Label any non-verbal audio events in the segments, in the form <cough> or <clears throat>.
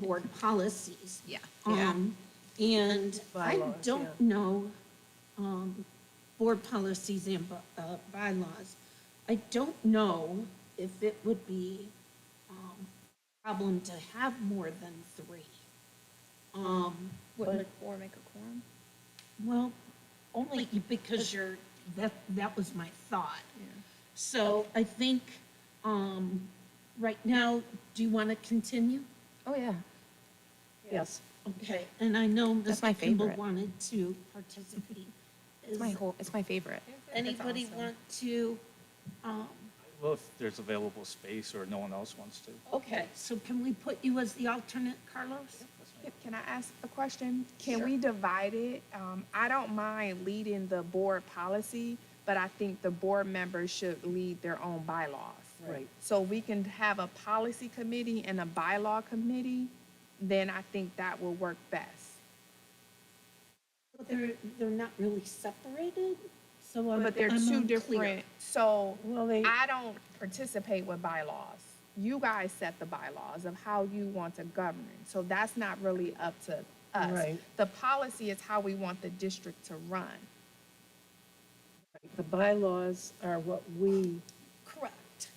board policies. Yeah. Um, and I Bylaws, yeah. don't know, um, board policies and, bu- uh, bylaws. I don't know if it would be, um, problem to have more than three. Um, Wouldn't a quorum make a quorum? well, only because you're, that, that was my thought. Yeah. So I think, um, right now, do you want to continue? Oh, yeah. Yes. Okay, and I know That's my Mr. Kimball favorite. wanted to participate. It's my whole, it's my favorite. Does anybody want to, um, Well, if there's available space or no one else wants to. okay, so can we put you as the alternate, Carlos? Can I ask a question? Can we divide it? Um, I don't mind leading the board policy, but I think the board members should lead their own bylaws. Right. So we can have a policy committee and a bylaw committee, then I think that will work best. Well, They're, they're not really separated, so I'm But they're I'm two unclear. different, so Well, they, I don't participate with bylaws. You guys set the bylaws of how you want to govern, so that's not really up to us. Right. The policy is how we want the district to run. the bylaws are what we, Correct.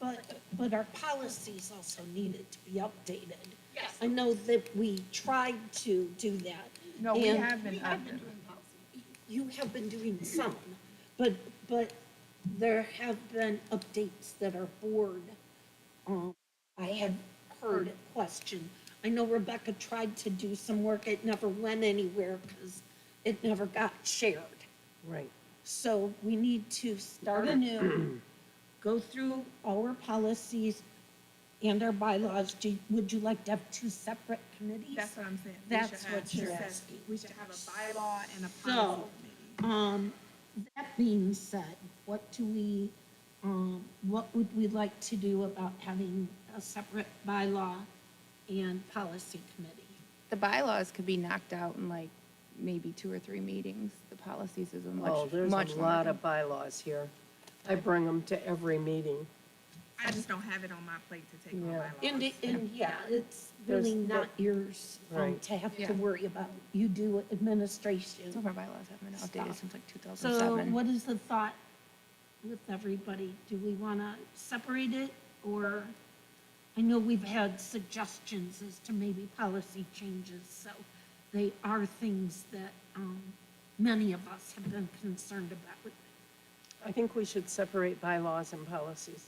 But, but our policies also needed to be updated. Yes. I know that we tried to do that. No, we and- have been up to- You have been doing some, but, but there have been updates that our board, um, I had heard a question. I know Rebecca tried to do some work, it never went anywhere because it never got shared. right. So we need to start anew, <clears throat> go through our policies and our bylaws. Do, would you like to have two separate committees? That's what I'm saying. We That's should have what you're two sets. asking. We should have a bylaw and a So, policy committee. um, that being said, what do we, um, what would we like to do about having a separate bylaw and policy committee? The bylaws could be knocked out in like maybe two or three meetings. The policies is a much, much Oh, there's a lot longer. of bylaws here. I bring them to every meeting. I just don't have it on my plate to take on Yeah. bylaws. um, And, it- and yeah, it's There's really the- not yours um, Right. to have Yeah. to worry about. You do administration. Some of our bylaws haven't been Stop. updated since like two thousand So seven. what is the thought with everybody? Do we want to separate it or? I know we've had suggestions as to maybe policy changes, so they are things that um, many of us have been concerned about. I think we should separate bylaws and policies.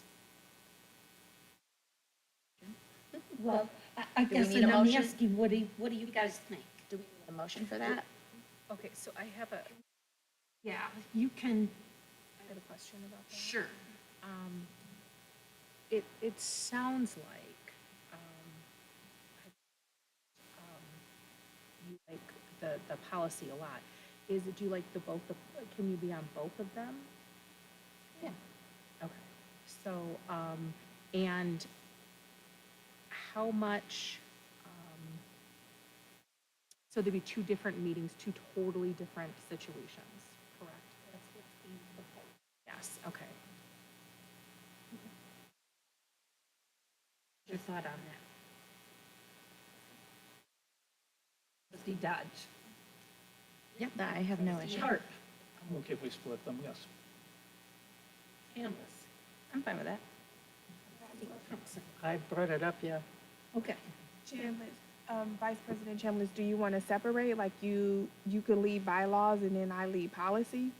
Well, I Do we guess, guess, need a and and I'm I'm motion? asking, what do, what do you guys think? Do we need a motion for that? Okay, so I have a, Yeah, you can, I have a question about that. sure. Um, it, it sounds like, um, I- um, you like the, the policy a lot. Is it, do you like the both, of? can you be on both of them? Yeah. Okay, so, um, and how much, um, so there'd be two different meetings, two totally different situations, correct? Yes, okay. Your thought on that? Trustee Dodge. Yeah, that I have no issue. Sharp. I'm okay if we split them, yes. Campbell's. I'm fine with that. I brought it up, yeah. Okay. Chambliss, um, Vice President Chambliss, do you want to separate? Like you, you could lead bylaws and then I lead policy?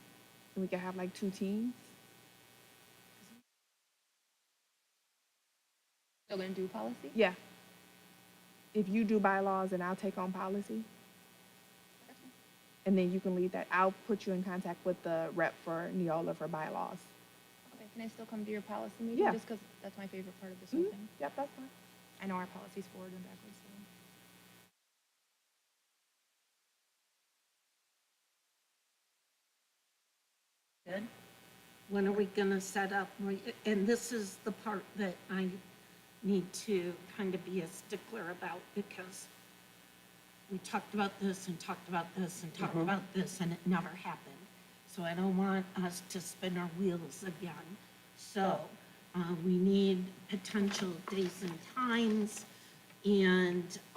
And we could have like two teams? Still gonna do policy? Yeah. If you do bylaws and I'll take on policy? And then you can lead that. I'll put you in contact with the rep for Neola for bylaws. Okay, can I still come to your policy meeting? Yeah. Just because that's my favorite part of Mm-hmm. this whole thing. Yep, that's fine. I know our policies forward and backwards. so. Good. When are we gonna set up, we- and this is the part that I need to kind of be a stickler about because we talked about this and talked about this and talked about this and it never happened. So I don't want us to spin our wheels again. So, uh, we need potential days and times. And